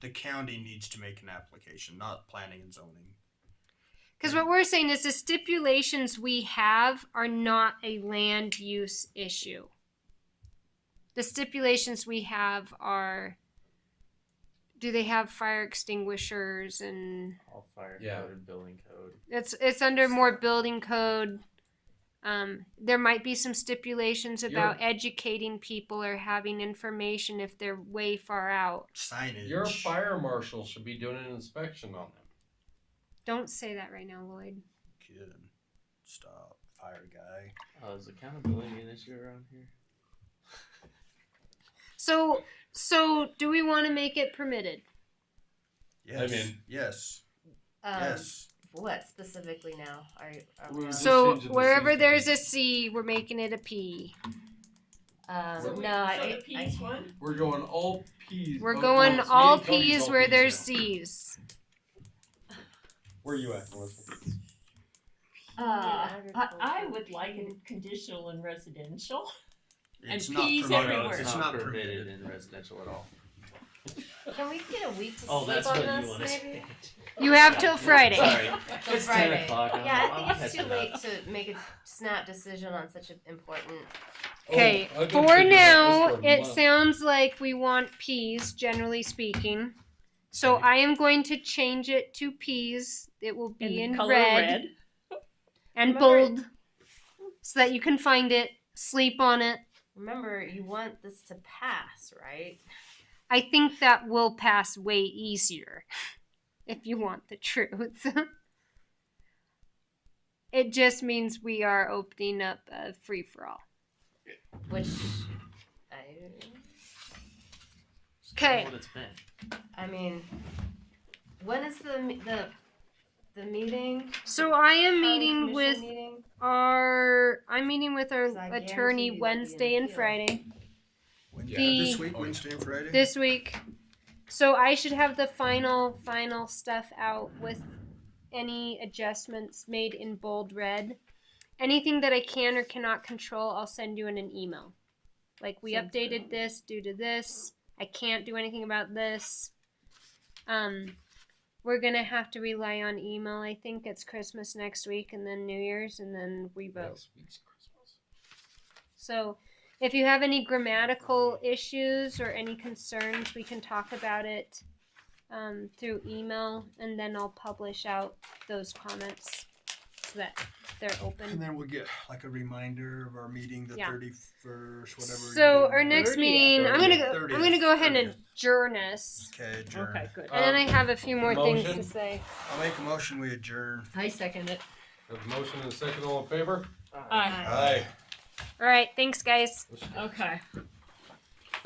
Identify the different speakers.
Speaker 1: the county needs to make an application, not planning and zoning.
Speaker 2: Because what we're saying is the stipulations we have are not a land use issue. The stipulations we have are, do they have fire extinguishers and
Speaker 3: All fire
Speaker 4: Yeah.
Speaker 3: code and building code.
Speaker 2: it's it's under more building code. Um, there might be some stipulations about educating people or having information if they're way far out.
Speaker 1: Signage.
Speaker 4: Your fire marshal should be doing an inspection on them.
Speaker 2: Don't say that right now, Lloyd.
Speaker 1: Kid. Stop. Fire guy.
Speaker 3: Oh, is accountability an issue around here?
Speaker 2: So so do we want to make it permitted?
Speaker 1: Yes.
Speaker 4: mean-
Speaker 1: yes.
Speaker 5: Um,
Speaker 1: yes.
Speaker 5: What specifically now are, are
Speaker 4: We're
Speaker 5: we on?
Speaker 4: just-
Speaker 2: So
Speaker 4: change it to
Speaker 2: wherever
Speaker 4: C.
Speaker 2: there's a C, we're making it a P.
Speaker 4: So
Speaker 5: um,
Speaker 4: we-
Speaker 5: no,
Speaker 6: So
Speaker 5: I,
Speaker 6: the P's
Speaker 5: I,
Speaker 6: one?
Speaker 4: We're going all P's.
Speaker 2: We're
Speaker 4: oh,
Speaker 2: going
Speaker 4: no, it's
Speaker 2: all
Speaker 4: me and Cody's
Speaker 2: Ps
Speaker 4: all
Speaker 2: where
Speaker 4: Ps
Speaker 2: there's
Speaker 4: now.
Speaker 2: Cs.
Speaker 4: Where are you at, Melissa?
Speaker 6: Uh, I, I
Speaker 5: agriculture.
Speaker 6: would like it conditional and residential. And
Speaker 1: It's not
Speaker 6: peas
Speaker 1: permitted.
Speaker 6: everywhere.
Speaker 1: It's,
Speaker 6: It's
Speaker 1: not permitted.
Speaker 3: in residential at all.
Speaker 5: can we get a week to
Speaker 3: Oh,
Speaker 5: sleep
Speaker 3: that's
Speaker 5: on
Speaker 3: what
Speaker 5: this
Speaker 3: you want to
Speaker 5: maybe?
Speaker 3: say.
Speaker 2: You have till Friday.
Speaker 3: Sorry,
Speaker 5: Till
Speaker 3: it's
Speaker 5: Friday.
Speaker 3: ten o'clock. I'm,
Speaker 5: Yeah,
Speaker 3: I'm
Speaker 5: I think it's too
Speaker 3: catching up.
Speaker 5: late to make a snap decision on such an important.
Speaker 2: Okay,
Speaker 4: Oh, I've been
Speaker 2: for
Speaker 4: thinking
Speaker 2: now,
Speaker 4: about this for a
Speaker 2: it
Speaker 4: month.
Speaker 2: sounds like we want Ps, generally speaking. So I am going to change it to Ps. It will
Speaker 6: And
Speaker 2: be in
Speaker 6: color
Speaker 2: red and
Speaker 5: Remember-
Speaker 2: bold so that you can find it, sleep on it.
Speaker 5: Remember, you want this to pass, right?
Speaker 2: I think that will pass way easier if you want the truth. it just means we are opening up a free for all.
Speaker 5: Which I
Speaker 3: Just tell
Speaker 2: 'Kay.
Speaker 3: What it's been.
Speaker 5: I mean, when is the the the meeting?
Speaker 2: So I am
Speaker 5: County
Speaker 2: meeting
Speaker 5: commission
Speaker 2: with
Speaker 5: meeting?
Speaker 2: our I'm meeting with our
Speaker 5: 'Cause I guarantee you
Speaker 2: attorney
Speaker 5: there'll be an
Speaker 2: Wednesday and
Speaker 5: appeal.
Speaker 2: Friday
Speaker 1: Wednesday,
Speaker 2: The-
Speaker 1: this week,
Speaker 4: Oh, yeah.
Speaker 1: Wednesday and Friday.
Speaker 2: this week. So I should have the final final stuff out with any adjustments made in bold red. Anything that I can or cannot control, I'll send you in an email. Like we
Speaker 6: Sounds good.
Speaker 2: updated this due to this. I can't do anything about this. Um we're gonna have to rely on email. I think it's Christmas next week and then New Year's and then we vote.
Speaker 4: Next week's Christmas.
Speaker 2: So if you have any grammatical issues or any concerns, we can talk about it um, through email and then I'll publish out those comments so that they're
Speaker 1: and
Speaker 2: open.
Speaker 1: then we'll get like a reminder of our meeting the
Speaker 2: Yeah.
Speaker 1: 31st, whatever.
Speaker 2: So our next
Speaker 6: 30th.
Speaker 2: meeting, I'm gonna go. I'm
Speaker 1: 30th,
Speaker 2: gonna go ahead and
Speaker 1: 30th.
Speaker 2: adjourn us,
Speaker 1: Okay, adjourn.
Speaker 6: Okay, good.
Speaker 2: and then
Speaker 4: Um,
Speaker 2: I have a few more things to
Speaker 4: motion?
Speaker 2: say.
Speaker 1: I'll make a motion. We adjourn.
Speaker 5: I second it.
Speaker 4: Have a motion
Speaker 3: Uh,
Speaker 4: and a second, all in favor?
Speaker 6: Aye.
Speaker 1: Aye.
Speaker 2: All right, thanks, guys.
Speaker 4: Let's go.
Speaker 6: Okay.